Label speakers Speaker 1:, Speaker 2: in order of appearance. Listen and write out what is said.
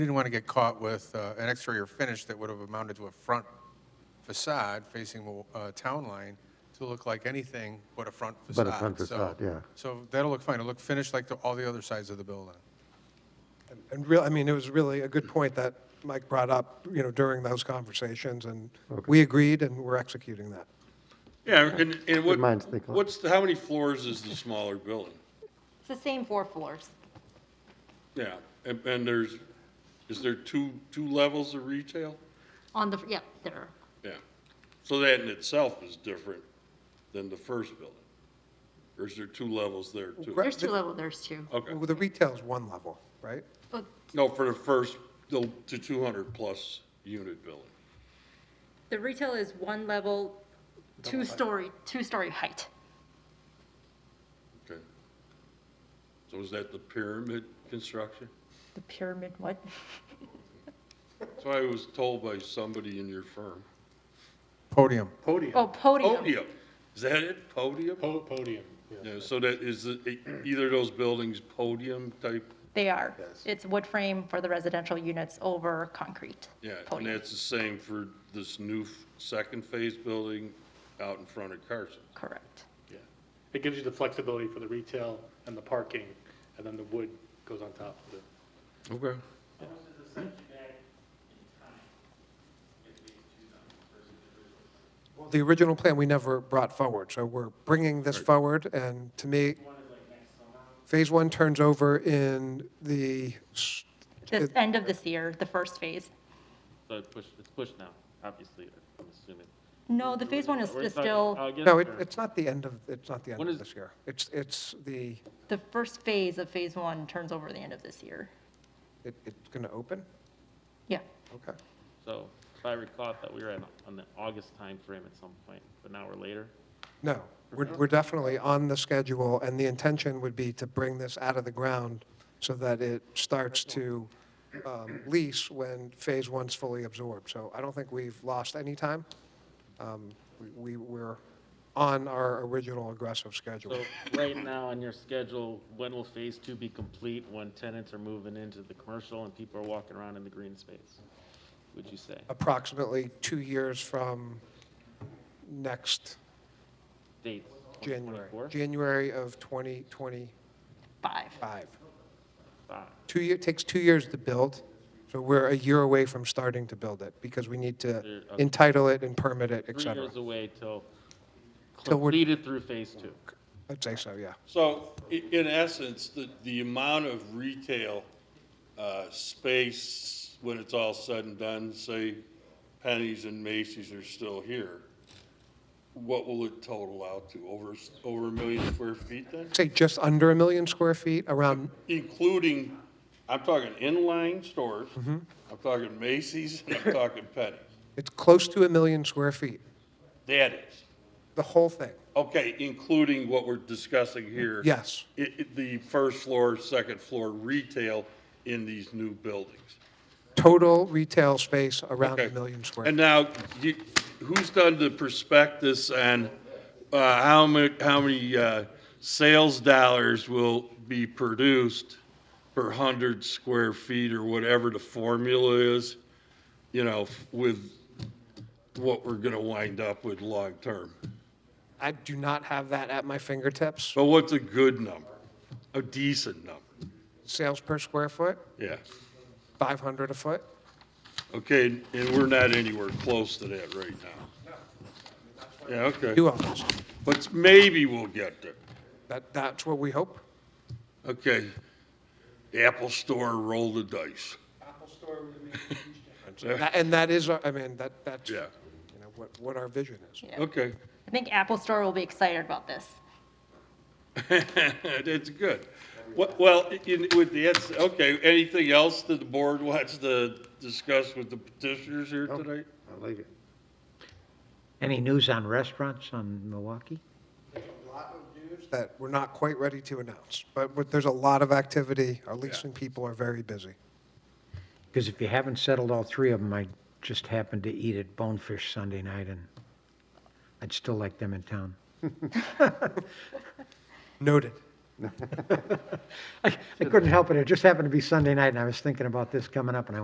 Speaker 1: Didn't want to get caught with uh, an exterior finish that would have amounted to a front facade facing a town line to look like anything but a front facade.
Speaker 2: But a front
Speaker 1: So-
Speaker 2: facade, yeah.
Speaker 1: So that'll look fine. It'll look finished like the- all the other sides of the building.
Speaker 3: And real, I mean, it was really a good point that Mike brought up, you know, during those conversations, and we agreed, and we're executing that.
Speaker 4: Yeah, and, and what,
Speaker 2: minds think alike.
Speaker 4: what's, the- how many floors is the smaller building?
Speaker 5: It's the same four floors.
Speaker 4: Yeah, and, and there's, is there two, two levels of retail?
Speaker 5: On the, yep, there are.
Speaker 4: Yeah, so that in itself is different than the first building. Or is there two levels there too?
Speaker 5: There's two level, there's two.
Speaker 4: Okay,
Speaker 3: Well, The retail's one level, right?
Speaker 5: But
Speaker 4: no, for the first, the, the two hundred plus unit building.
Speaker 5: the retail is one level, two-story, two-story height.
Speaker 4: Okay. So is that the pyramid construction?
Speaker 6: The pyramid, what?
Speaker 4: So I was told by somebody in your firm.
Speaker 1: Podium.
Speaker 5: Oh, podium.
Speaker 4: Podium, is that it? Podium?
Speaker 7: Po- Podium, yeah.
Speaker 4: Yeah, so that is, it- either of those buildings podium type,
Speaker 6: They are. It's wood frame for the residential units over concrete.
Speaker 4: yeah, and
Speaker 6: Podium.
Speaker 4: that's the same for this new f- second phase building out in front of Carson.
Speaker 6: Correct.
Speaker 7: yeah. It gives you the flexibility for the retail and the parking, and then the wood goes on top of it.
Speaker 4: Okay.
Speaker 3: The original plan we never brought forward, so we're bringing this forward, and to me, phase one turns over in the, s-
Speaker 6: This end of this year, the first phase.
Speaker 8: So it pushed, it's pushed now, obviously, I'm assuming.
Speaker 6: No, the phase one is
Speaker 8: We're
Speaker 6: is
Speaker 8: talking
Speaker 6: still,
Speaker 8: August
Speaker 3: no, it-
Speaker 8: or-
Speaker 3: it's not the end of, it's not the end
Speaker 8: What
Speaker 3: of
Speaker 8: is-
Speaker 3: this year. It's, it's the,
Speaker 6: the first phase of phase one turns over the end of this year.
Speaker 3: it- it's going to open?
Speaker 6: Yeah.
Speaker 3: Okay.
Speaker 8: So if I recall, I thought we were in, on the August timeframe at some point, but now we're later.
Speaker 3: No, we're, we're definitely on the schedule, and the intention would be to bring this out of the ground so that it starts to um, lease when Phase One's fully absorbed. So I don't think we've lost any time. Um, We, we were on our original aggressive schedule.
Speaker 8: So right now on your schedule, when will phase two be complete when tenants are moving into the commercial and people are walking around in the green space? Would you say?
Speaker 3: Uh, Approximately two years from next
Speaker 8: Dates?
Speaker 3: January,
Speaker 8: 2024?
Speaker 3: January of 2025.
Speaker 6: Five.
Speaker 8: Five.
Speaker 3: Two year, takes two years to build, so we're a year away from starting to build it, because we need to
Speaker 8: okay.
Speaker 3: entitle it and permit it, et
Speaker 8: Three
Speaker 3: cetera.
Speaker 8: years away till
Speaker 3: Till we're-
Speaker 8: completed through phase two.
Speaker 3: I'd say so, yeah.
Speaker 4: So i- in essence, the, the amount of retail, uh, space when it's all said and done, say Penny's and Macy's are still here, what will it total out to? Over, s- over a million square feet then?
Speaker 3: Say just under a million square feet, around,
Speaker 4: including, I'm talking inline stores, I'm talking Macy's, and I'm talking Penny.
Speaker 3: it's close to a million square feet,
Speaker 4: That is,
Speaker 3: the whole thing,
Speaker 4: okay, including what we're discussing here.
Speaker 3: yes.
Speaker 4: It, it- the first floor, second floor retail in these new buildings.
Speaker 3: Total retail space around
Speaker 4: Okay.
Speaker 3: a million square.
Speaker 4: And
Speaker 3: feet.
Speaker 4: now, you, who's done the prospectus on, uh, how many, how many, uh, sales dollars will be produced per hundred square feet or whatever the formula is? You know, f- with what we're gonna wind up with long-term.
Speaker 3: I do not have that at my fingertips,
Speaker 4: So what's a good number? A decent number?
Speaker 3: sales per square foot,
Speaker 4: Yeah.
Speaker 3: 500 a foot.
Speaker 4: Okay, and we're not anywhere close to that right now. Yeah, okay.
Speaker 3: Two owners,
Speaker 4: But maybe we'll get there.
Speaker 3: that, that's what we hope.
Speaker 4: Okay. Apple Store, roll the dice.
Speaker 3: That- And that is, our- I mean, that, that's, you
Speaker 4: Yeah.
Speaker 3: know, what, what our vision is.
Speaker 4: Okay.
Speaker 6: I think Apple Store will be excited about this.
Speaker 4: That's good. Wha- Well, in- with the, it's- okay, anything else that the board wants to discuss with the petitioners here tonight?
Speaker 2: I like it.
Speaker 9: Any news on restaurants on Milwaukee?
Speaker 3: that we're not quite ready to announce, but, but there's a lot of activity. Our leasing people are very busy.
Speaker 9: Because if you haven't settled all three of them, I just happened to eat at Bonefish Sunday night, and I'd still like them in town.
Speaker 3: Noted.
Speaker 9: I I couldn't help it. It just happened to be Sunday night, and I was thinking about this coming up, and I